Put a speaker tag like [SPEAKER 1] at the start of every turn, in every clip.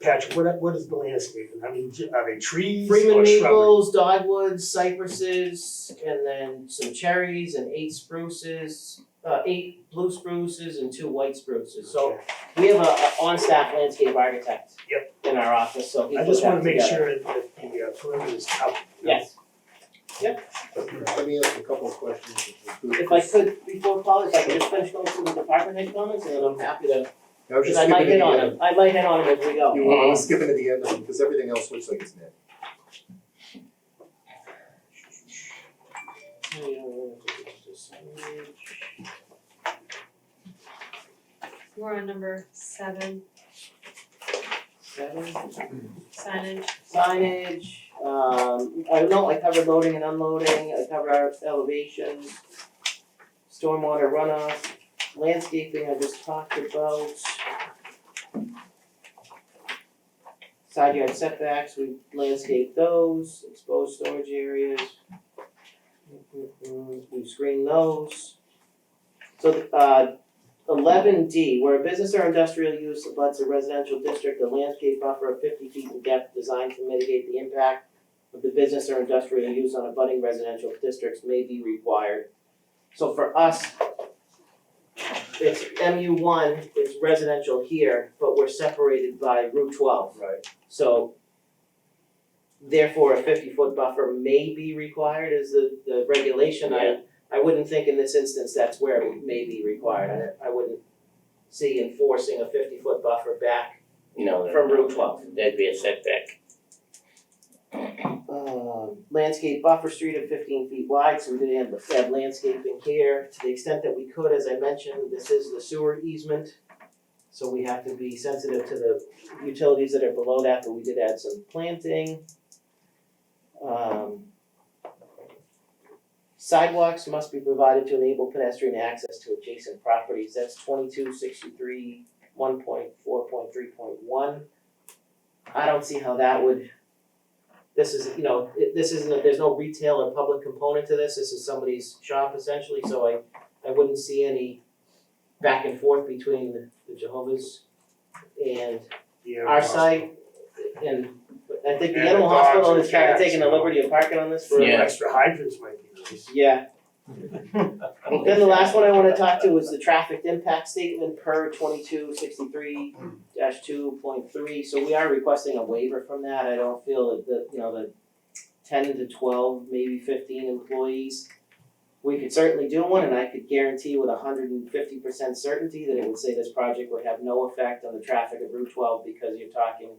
[SPEAKER 1] Patrick, what what is the landscaping? I mean, j- are they trees
[SPEAKER 2] Freeman
[SPEAKER 1] or shrubbery?
[SPEAKER 2] maples, dogwoods, cypresses, and then some cherries and eight spruces, uh, eight blue spruces and two white spruces. So
[SPEAKER 1] Okay.
[SPEAKER 2] we have a, a on-staff landscape architect.
[SPEAKER 1] Yep.
[SPEAKER 2] In our office, so he
[SPEAKER 1] I
[SPEAKER 2] put
[SPEAKER 1] just wanna
[SPEAKER 2] that
[SPEAKER 1] make
[SPEAKER 2] together.
[SPEAKER 1] sure that the uh, perimeter is covered. you know?
[SPEAKER 2] Yes,
[SPEAKER 3] Let me ask a couple of questions.
[SPEAKER 2] if I could, before Paul, if I could just finish going through the department head comments, and then I'm happy to,
[SPEAKER 3] I was
[SPEAKER 2] because
[SPEAKER 3] just
[SPEAKER 2] I
[SPEAKER 3] skipping to
[SPEAKER 2] might
[SPEAKER 3] the
[SPEAKER 2] hit on
[SPEAKER 3] end.
[SPEAKER 2] them, I might hit on them as we go.
[SPEAKER 3] You were skipping to the end of them, because everything else looks like it's net.
[SPEAKER 4] We're on number seven,
[SPEAKER 2] Seven.
[SPEAKER 4] signage,
[SPEAKER 2] signage, um, I don't know, I cover loading and unloading, I cover our elevations, stormwater runoff, landscaping I just talked about. Side yard setbacks, we landscape those, exposed storage areas. We screen those. So, uh, Eleven D, where a business or industrial use abuts a residential district, a landscape buffer of fifty feet in depth designed to mitigate the impact of the business or industrial use on abutting residential districts may be required. So for us, it's MU one, it's residential here, but we're separated by Route twelve.
[SPEAKER 3] Right.
[SPEAKER 2] So therefore, a fifty-foot buffer may be required is the, the regulation. I, I wouldn't think in this instance that's where it may be required. I, I wouldn't see enforcing a fifty-foot buffer back.
[SPEAKER 5] You know,
[SPEAKER 2] From Route 12.
[SPEAKER 5] That'd be a setback.
[SPEAKER 2] Um, landscape buffer street of fifteen feet wide, so we did have, have landscaping here. To the extent that we could, as I mentioned, this is the sewer easement. So we have to be sensitive to the utilities that are below that, but we did add some planting. Um. Sidewalks must be provided to enable pedestrian access to adjacent properties, that's twenty-two sixty-three, one point four point three point one. I don't see how that would, this is, you know, it- this isn't, a- there's no retail or public component to this, this is somebody's shop essentially, so I, I wouldn't see any back and forth between the Jehovah's and
[SPEAKER 1] Yeah,
[SPEAKER 2] our
[SPEAKER 1] possible.
[SPEAKER 2] site, and I think the
[SPEAKER 1] And the
[SPEAKER 2] animal
[SPEAKER 1] dogs
[SPEAKER 2] hospital
[SPEAKER 1] and
[SPEAKER 2] is kinda
[SPEAKER 1] cats,
[SPEAKER 2] taking the
[SPEAKER 1] you know.
[SPEAKER 2] liberty of parking on this for.
[SPEAKER 1] Or
[SPEAKER 5] Yeah.
[SPEAKER 1] extra hydrants might be nice.
[SPEAKER 2] Yeah. Then the last one I wanna talk to is the traffic impact statement per twenty-two sixty-three two point three, so we are requesting a waiver from that, I don't feel that the, you know, the ten to twelve, maybe fifteen employees. We could certainly do one, and I could guarantee with hundred and fifty percent certainty that it would say this project would have no effect on the traffic of Route twelve, because you're talking,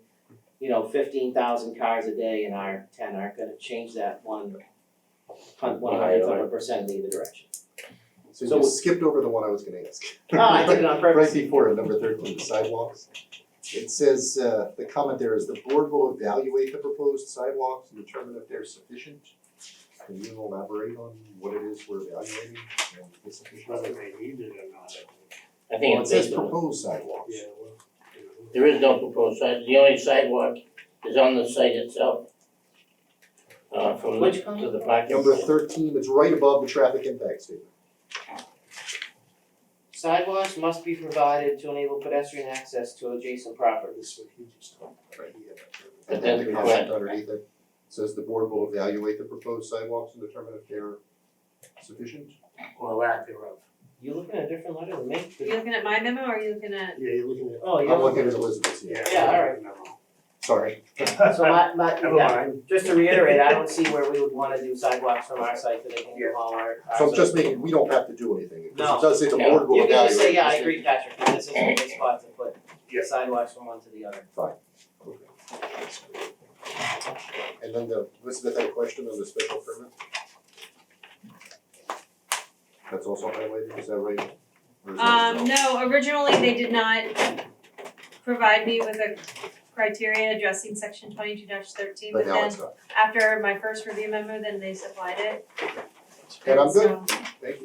[SPEAKER 2] you know, fifteen thousand cars a day, and our ten aren't gonna change that one hun- one hundredth of a percent in either direction.
[SPEAKER 3] So
[SPEAKER 2] So-
[SPEAKER 3] you skipped over the one I was gonna ask.
[SPEAKER 2] Ah, I did it on purpose.
[SPEAKER 3] Right before it, number thirteen, the sidewalks. It says, uh, the comment there is the board will evaluate the proposed sidewalks and determine if they're sufficient. Can you elaborate on what it is we're evaluating and the
[SPEAKER 1] Whether
[SPEAKER 3] sufficient?
[SPEAKER 1] they need it or not, I think.
[SPEAKER 5] I
[SPEAKER 3] Well,
[SPEAKER 5] think
[SPEAKER 3] it
[SPEAKER 5] it's
[SPEAKER 3] says
[SPEAKER 5] based on,
[SPEAKER 3] proposed sidewalks.
[SPEAKER 1] Yeah, well, you
[SPEAKER 5] there is no proposed side, the only sidewalk is on the site itself. Uh, from the,
[SPEAKER 2] Which
[SPEAKER 5] to the parking.
[SPEAKER 3] Number thirteen, it's right above the traffic impact statement.
[SPEAKER 2] Sidewalks must be provided to enable pedestrian access to adjacent
[SPEAKER 1] know,
[SPEAKER 2] properties.
[SPEAKER 1] this one he just talked about.
[SPEAKER 3] Right.
[SPEAKER 1] Yeah.
[SPEAKER 5] But
[SPEAKER 3] And then
[SPEAKER 5] then
[SPEAKER 3] we
[SPEAKER 5] the
[SPEAKER 3] have it
[SPEAKER 5] grant.
[SPEAKER 3] underneath it, says the board will evaluate the proposed sidewalks and determine if they're sufficient.
[SPEAKER 1] Or lack thereof.
[SPEAKER 2] You looking at a different letter than me?
[SPEAKER 4] are you looking at my memo or are you looking at,
[SPEAKER 1] Yeah, you're looking at.
[SPEAKER 2] Oh,
[SPEAKER 3] I'm
[SPEAKER 2] yeah.
[SPEAKER 3] looking at Elizabeth's, yeah,
[SPEAKER 2] Yeah, all
[SPEAKER 1] Yeah, all
[SPEAKER 3] sorry.
[SPEAKER 1] right.
[SPEAKER 2] So my, my,
[SPEAKER 1] Never mind.
[SPEAKER 2] just to reiterate, I don't see where we would wanna do sidewalks from our site to the end of all our, our.
[SPEAKER 3] So I'm just
[SPEAKER 2] sites.
[SPEAKER 3] making, we don't have to do anything,
[SPEAKER 2] No.
[SPEAKER 3] because it does say the board will
[SPEAKER 2] You
[SPEAKER 3] evaluate.
[SPEAKER 2] can just say, yeah, I
[SPEAKER 3] Just-
[SPEAKER 2] agree, Patrick, that this is a good spot to put
[SPEAKER 1] Yeah.
[SPEAKER 2] sidewalks from one to the other.
[SPEAKER 3] And then the, Elizabeth had a question on the special permit? That's also highlighted, is that right? Or is that-
[SPEAKER 4] um, no, originally they did not provide me with a criteria addressing section twenty-two thirteen, but
[SPEAKER 3] But now
[SPEAKER 4] then
[SPEAKER 3] it's not,
[SPEAKER 4] after my first review memo, then they supplied it,
[SPEAKER 3] and I'm good,
[SPEAKER 4] so-
[SPEAKER 3] thank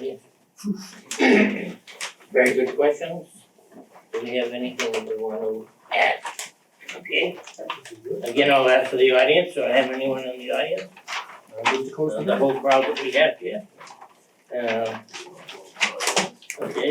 [SPEAKER 3] you.
[SPEAKER 5] Okay. Very good questions. Do we have anything that we wanna add? Okay, again, I'll ask for the audience, do I have anyone in the audience?
[SPEAKER 3] I move to close the
[SPEAKER 5] Uh, The whole crowd that we have here. Um, Okay,